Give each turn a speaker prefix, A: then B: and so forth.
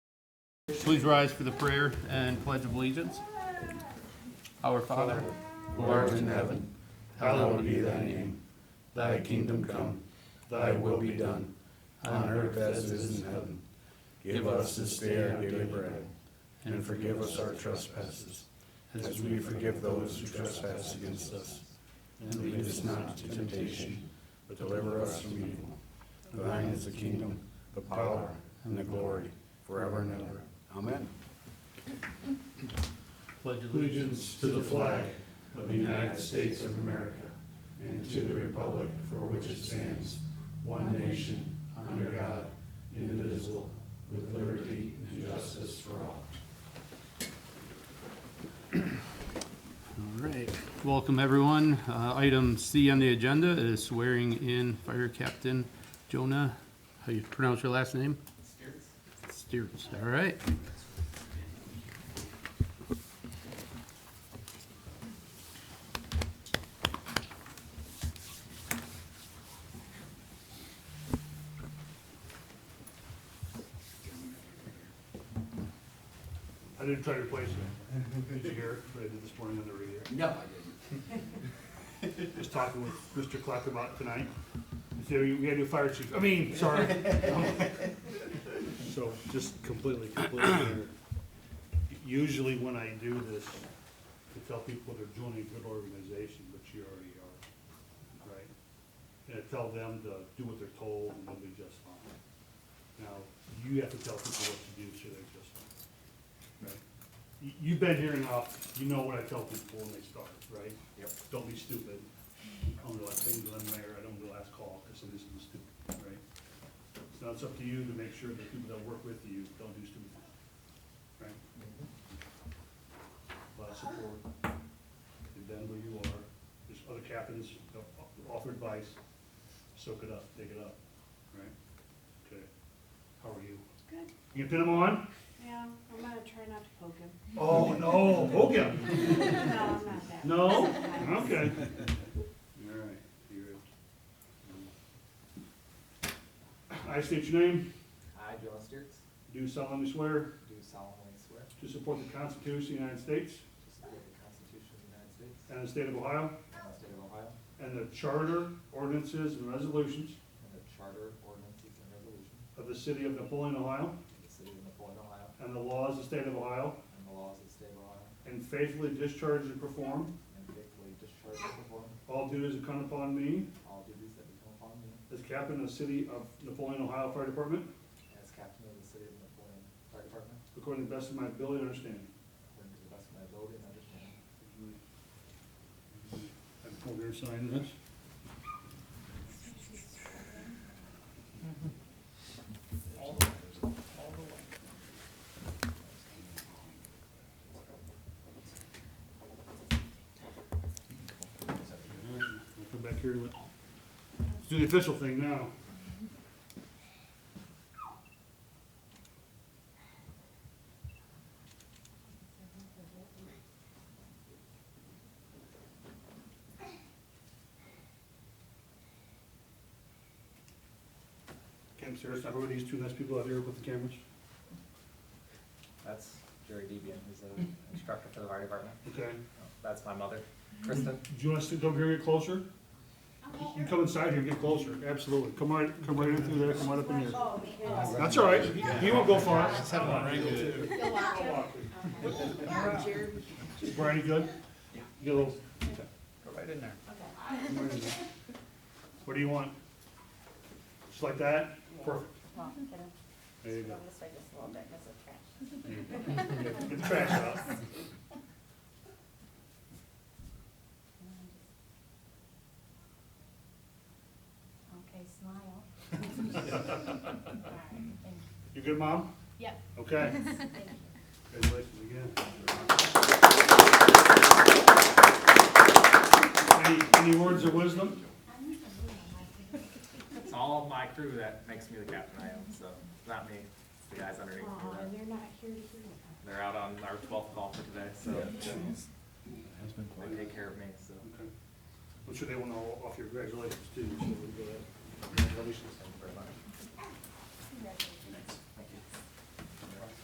A: Please rise for the prayer and pledge of allegiance. Our Father,
B: who art in heaven, hallowed be thy name. Thy kingdom come, thy will be done, on earth as it is in heaven. Give us this day our daily bread, and forgive us our trespasses, as we forgive those who trespass against us. And lead us not into temptation, but deliver us from evil. For Thine is the kingdom, the power, and the glory, forever and ever. Amen.
A: pledge of allegiance.
B: allegiance to the flag of the United States of America and to the republic for which it stands, one nation, under God, indivisible, with liberty and justice for all.
A: All right, welcome everyone. Uh, Item C on the agenda is swearing in Fire Captain Jonah, how you pronounce your last name? Steers. all right.
C: I didn't try to replace it. Did you hear it? What I did this morning on the radio?
D: No, I didn't.
C: Was talking with Mr. Clark about it tonight. He said, we gotta do fire chief. I mean, sorry. So just completely, completely. ignorant. Usually when I do this, I tell people they're joining a good organization, but you already are, right? And I tell them to do what they're told and they'll be just fine. Now, you have to tell people what to do so they're just fine. Right. You- You've been here enough, you know what I tell people when they start, right?
D: Yep.
C: Don't be stupid. I don't do last thing, I'm mayor, I don't do last call, because somebody's gonna be stupid, right? So it's up to you to make sure that people that work with you don't do stupid things, right? A lot of support, you've been where you are, there's other captains that offer advice, soak it up, take it up, right? Okay, how are you?
E: Good.
C: You gonna pin them on?
E: Yeah, I'm gonna try not to poke him.
C: Oh, no, poke him.
E: No, I'm not that.
C: No? Okay. All right, you're it. I state your name,
D: I, Joe Steers,
C: do solemnly swear
D: do solemnly swear to
C: to support the Constitution of the United States
D: support the Constitution of the United States
C: and the state of Ohio,
D: and the state of Ohio,
C: and the charter, ordinances, and resolutions
D: and the charter, ordinances, and resolutions
C: of the city of Napoleon, Ohio,
D: of the city of Napoleon, Ohio,
C: and the laws of the state of Ohio,
D: and the laws of the state of Ohio,
C: and faithfully discharge and perform
D: and faithfully discharge and perform
C: all duties that come upon me
D: all duties that become upon me
C: as captain of the city of Napoleon, Ohio Fire Department,
D: as captain of the city of Napoleon Fire Department,
C: according to the best of my ability and understanding.
D: according to the best of my ability and understanding.
C: I'm over here signing this. Alright, We'll come back here to it. Let's do the official thing now. Cam, serious, who are these two nice people out here with the cameras?
D: That's Jerry Debian, who's an instructor for the fire department.
C: Okay.
D: That's my mother, Kristen.
C: Do you want us to come here and get closer? You come inside here, get closer, absolutely. Come right, come right in through there, come right up in here.
E: Oh, yeah.
C: That's all right, he won't go far.
E: You'll watch him?
C: Brian, you good? Yeah. Get a little,
D: Go right in there.
E: Okay.
C: what do you want? Just like that? Perfect.
E: Well, get him.
C: There you
E: Go
C: go.
E: this way just a little bit, 'cause it's
C: Get the
E: trash.
C: trash out.
E: Okay, smile. All right, thank you.
C: You good, Mom?
E: Yep.
C: Okay.
E: Thank you.
C: Congratulations again. Any, any words of wisdom?
D: It's all my crew that makes me the captain I am, so it's not me, it's the guys underneath me.
E: Aw,
D: that-
E: and you're not here to hear that.
D: They're out on our twelfth call for today, so they take care of me, so.
C: Okay. I'm sure they want to offer your congratulations too. so we'll go ahead.
D: Congratulations. Thank you very much.